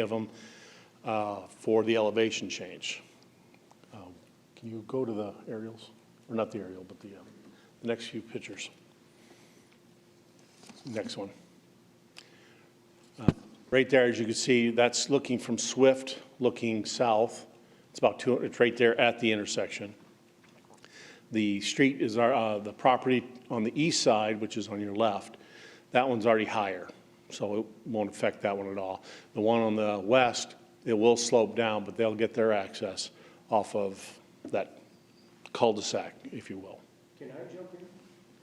of them uh, for the elevation change. Um, Can you go to the aerials? Or not the aerial, but the, uh, the next few pictures. Next one. Uh, Right there, as you can see, that's looking from Swift, looking south. It's about two, it's right there at the intersection. The street is our, uh, the property on the east side, which is on your left, that one's already higher, so it won't affect that one at all. The one on the west, it will slope down, but they'll get their access off of that cul-de-sac, if you will.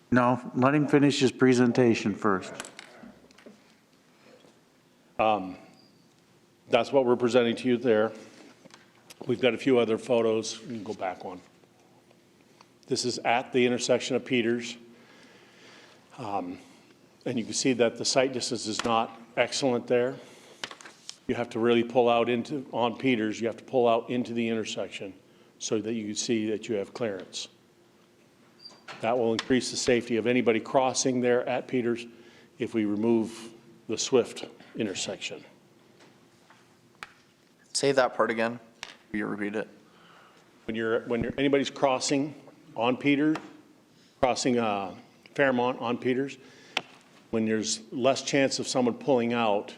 No, let him finish his presentation first. That's what we're presenting to you there. We've got a few other photos. You can go back one. This is at the intersection of Peters. Um, And you can see that the sight distance is not excellent there. You have to really pull out into, on Peters, you have to pull out into the intersection so that you can see that you have clearance. That will increase the safety of anybody crossing there at Peters if we remove the Swift intersection. Say that part again. Will you repeat it? When you're, when you're, anybody's crossing on Peters, crossing uh, Fairmont on Peters, when there's less chance of someone pulling out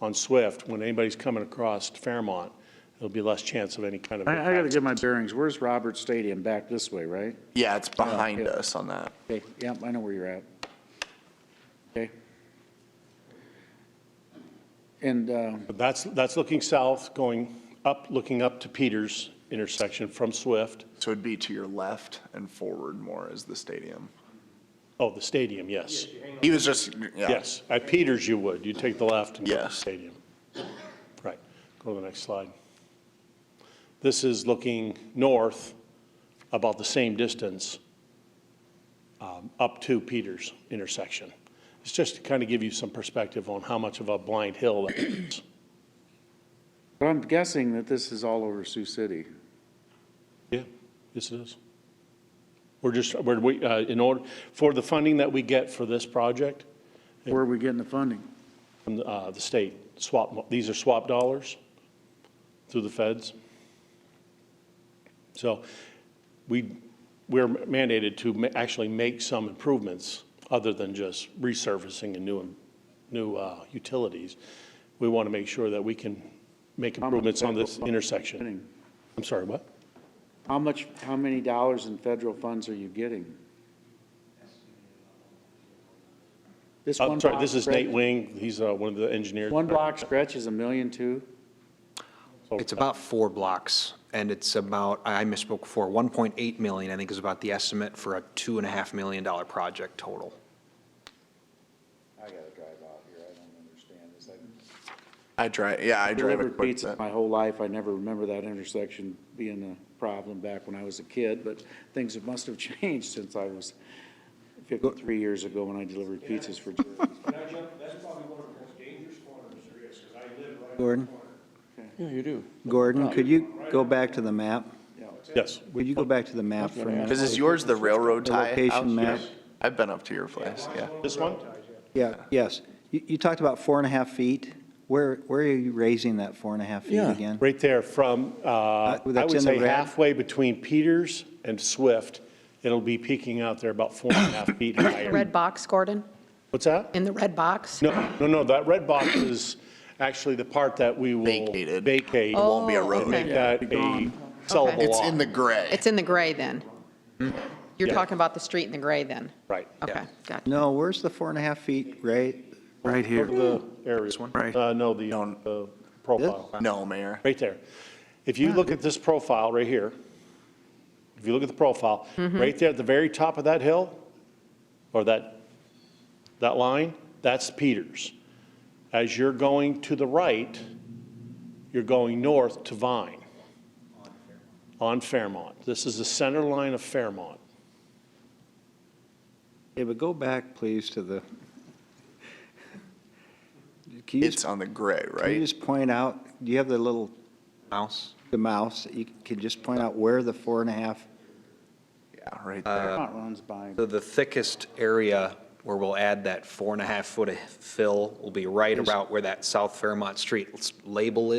on Swift, when anybody's coming across Fairmont, there'll be less chance of any kind of. I, I gotta impact. get my bearings. Where's Robert Stadium? Back this way, right? Yeah, it's behind yeah. us on that. Okay, yep, I know where you're at. Okay. And, um, But That's, that's looking south, going up, looking up to Peters intersection from Swift. So it'd be to your left and forward more is the stadium. Oh, the stadium, yes. He was just, yeah. Yes, at Peters you would. You take the left and go to the Yes. stadium. Right, go to the next slide. This is looking north about the same distance um, up to Peters intersection. It's just to kind of give you some perspective on how much of a blind hill that is. but I'm guessing that this is all over Sioux City. Yeah, yes it is. We're just, we're, we, uh, in order, for the funding that we get for this project, Where are we getting the funding? from the, uh, the state, swap, mo- these are swap dollars through the feds. So we, we're mandated to ma- actually make some improvements other than just resurfacing and new, new uh, utilities. We want to make sure that we can make much improvements on this federal intersection. Funding. I'm sorry, what? How much, how many dollars in federal funds are you getting? This I'm one Uh, sorry, block this is stretch- Nate Wing, he's uh, one of the engineers. One block stretch is a million two? It's about four blocks, and it's about, I I misspoke before, 1.8 million, I think is about the estimate for a $2.5 million dollar project total. I gotta drive out here, I don't understand this. I drive, yeah, I drive a Delivered quick pizza bit. my whole life, I never remember that intersection being a problem back when I was a kid, but things have- must have changed since I was 53 years ago when I delivered pizzas for Jerry's. Can I jump, that's probably one of the most dangerous corners there is, because I live right Gordon? Yeah, you do. Gordon, could you go back to the map? Yes, Could you go back to the map for a minute? Because is yours the railroad The tie house? location map? I've been up to your place, yeah. this one? Yeah, yes. You, you talked about four and a half feet. Where, where are you raising that four and a half feet Yeah. again? Right there from, uh, I that's would in the say red? halfway between Peters and Swift, it'll be peaking out there about four and a half feet The higher. red box, Gordon? What's that? In the red box? No, no, no, that red box is actually the part that we will Vacated. vacate. Oh, Won't be a road. okay. Make that a sellable It's lot. in the gray. It's in the gray then? You're Mm-hmm. Yeah. talking about the street in the gray then? Right. Okay, gotcha. No, where's the four and a half feet, right? Right here. The area. This one? Uh, no, the, No. the profile. No, Mayor. Right there. If you look at this profile right here, if you look at the profile, right there at the very top of that hill, or that, that line, that's Peters. As you're going to the right, you're going north to Vine. On Fairmont. This is the center line of Fairmont. Yeah, but go back, please, to the. Can you It's just, on the gray, can you right? just point out, do you have the little, Mouse? the mouse? You could just point out where the four and a half Yeah, right there. Not runs by. So the thickest area where we'll add that four and a half foot of fill will be right about where that South Fairmont Street label